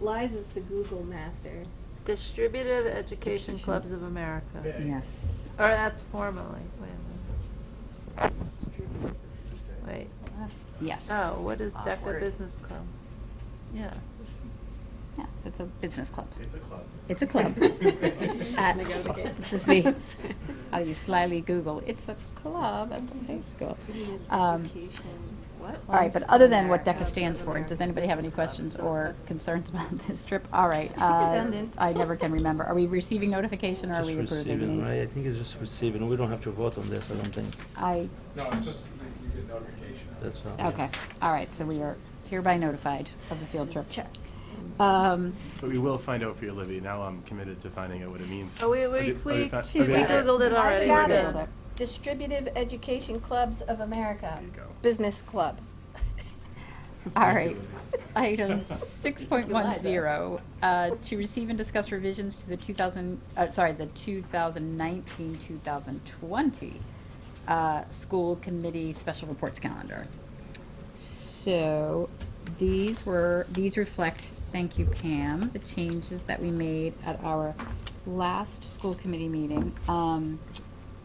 Lies is the Google master. Distributive Education Education. Clubs of America. Yeah. Yes. Or that's formally, wait a minute, Yes. wait. Oh, what is DECA Awkward. Business Club? Yeah. Yeah, so it's a business club. It's a club. It's a club. Uh, At- This is the, how do you slyly Google, it's a club at the high school. Um, What? All right, but other than what America. DECA stands for, does anybody have any questions or concerns about this trip? All right. uh, Redundant. I never can remember. Are we receiving notification or are Just we approving receiving, right? I these? think it's just receiving. We don't have to vote on this, I don't think. I, No, it's just that you get notification. That's all. okay, all right, so we are hereby notified of the field trip. Check. Um, But we will find out for you, Olivia. Now I'm committed to finding out what it means. Oh, we, we, Have you- have we, you fi- we She's have you- got it. Googled it already, we're got it. good. Distributive Education Clubs of America. There you go. Business Club. All Thank right. you, Item Olivia. six point one zero, uh, to receive and discuss revisions to the two thousand, uh, sorry, the two thousand nineteen, two thousand twenty, uh, school committee special reports calendar. So, these were, these reflect, thank you Pam, the changes that we made at our last school committee meeting, um,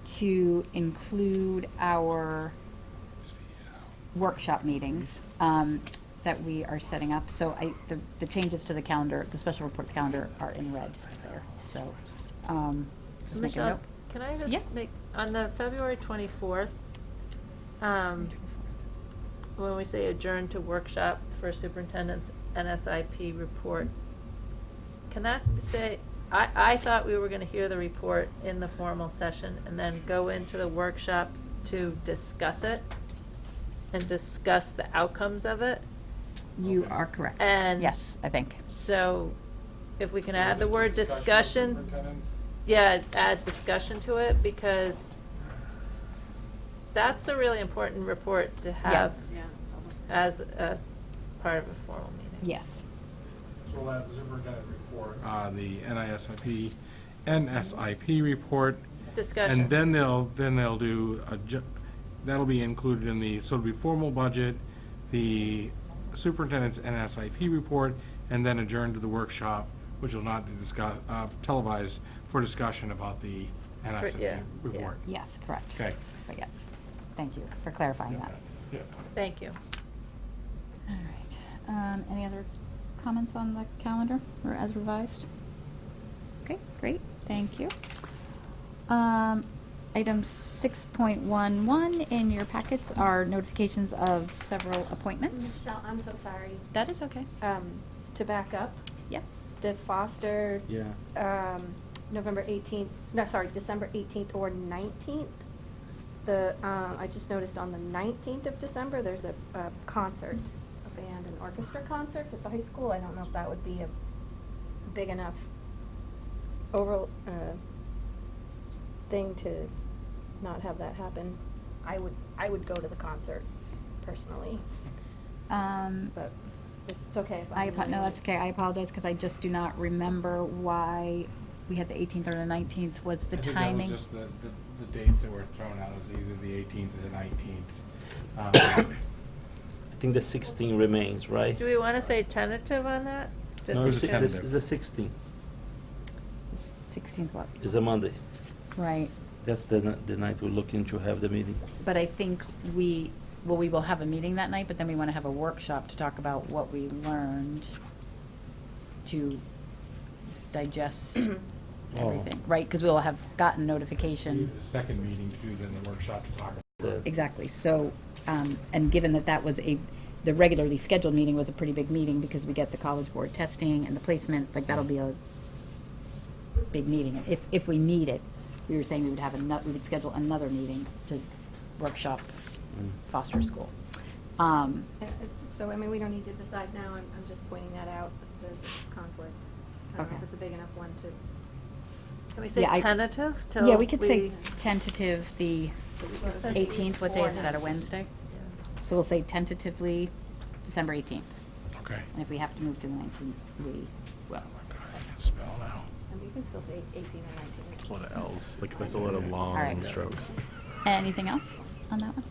to include our workshop meetings um, that we are setting up. So I, the, the changes to the calendar, the special reports calendar are in red there, so, um, just make a Michelle, note. can I Yeah. just make, on the February 24th, um, when we say adjourn to workshop for superintendent's NSIP report, can that say, I, I thought we were going to hear the report in the formal session and then go into the workshop to discuss it and discuss the outcomes of it. You are correct. And- Yes, I think. So if we can So add is the it word of discussion, superintendents? yeah, add discussion to it because that's a really important report to have Yeah. as a part of a formal meeting. Yes. So we'll add the superintendent report, uh, the NISIP, NSIP report. Discussion. And then they'll, then they'll do, a ju- that'll be included in the, so it'll be formal budget, the superintendent's NSIP report, and then adjourn to the workshop, which will not be discuss, uh, televised for discussion about the yeah, NSIP yeah. report. Yes, correct. Okay. But yeah, thank you for clarifying that. Yeah. Thank you. All right. Um, Any other comments on the calendar or as revised? Okay, great, thank you. Um, Item 6.11 in your packets are notifications of several appointments. Michelle, I'm so sorry. That is okay. Um, to back up, Yep. the foster, Yeah. um, November eighteenth, no, sorry, December eighteenth or nineteenth. The, um, I just noticed on the nineteenth of December, there's a, a concert, a band and orchestra concert at the high school. I don't know if that would be a big enough over, uh, thing to not have that happen. I would, I would go to the concert personally, Um, but it's okay if I, I'm. apo- no, late. that's okay, I apologize because I just do not remember why we had the 18th or the 19th was the timing. I think that was just the, the, the dates that were thrown out, it was either the eighteenth or the nineteenth. Um, I think the 16 remains, right? Do we want to say tentative on that? Just No, It was it's a because- it's tentative. the 16. The 16th, what? It's a Monday. Right. That's the, ni- the night we're looking to have the meeting. But I think we, well, we will have a meeting that night, but then we want to have a workshop to talk about what we learned to digest everything, right? Because we'll have gotten The notification. second meeting to do then the workshop to talk about. The- Exactly, so, um, and given that that was a, the regularly scheduled meeting was a pretty big meeting because we get the college board testing and the placement, like that'll be a big meeting. If, if we need it, we were saying we would have another, we would schedule another meeting to workshop Mm. foster school. Um, Uh, uh, So, I mean, we don't need to decide now, I'm, I'm just pointing that out, that there's a conflict. I don't know if Okay. it's a big enough one to, Can we say Yeah, I- tentative till Yeah, we could say we- tentative, the Well, 18th, what day is that, a fourth. Wednesday? So we'll say tentatively December 18th, Okay. Oh and if we have to move to the 19th, we will. Oh my God, I can spell now. I mean, you can still say eighteen or nineteen. That's a lot of L's. Like, that's a lot of right. long strokes. Anything else on that one?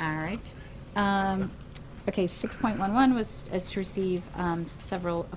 All right. Um, Okay, 6.11 was, is to receive um, several